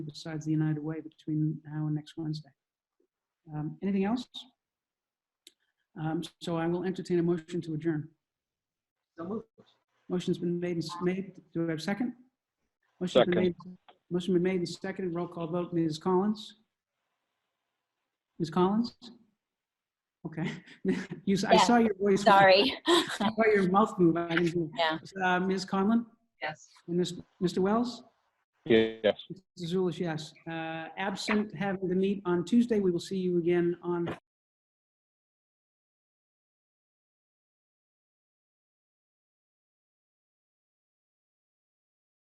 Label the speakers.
Speaker 1: besides the United Way between now and next Wednesday. Um, Anything else? Um, So I will entertain a motion to adjourn.
Speaker 2: So moved.
Speaker 1: Motion's been made, and s- made, do I have a second? Motion's been
Speaker 3: Second.
Speaker 1: made- Motion been made and seconded, roll call vote, Ms. Collins? Ms. Collins? Okay, you, s- I
Speaker 4: Yeah,
Speaker 1: saw your voice.
Speaker 4: Sorry.
Speaker 1: I saw your mouth move, I didn't hear.
Speaker 4: Yeah.
Speaker 1: Uh, Ms. Conlon?
Speaker 2: Yes.
Speaker 1: And this, Mr. Wells?
Speaker 3: Yes.
Speaker 1: Mr. Zulish, yes. Uh, Absent having to meet on Tuesday, we will see you again on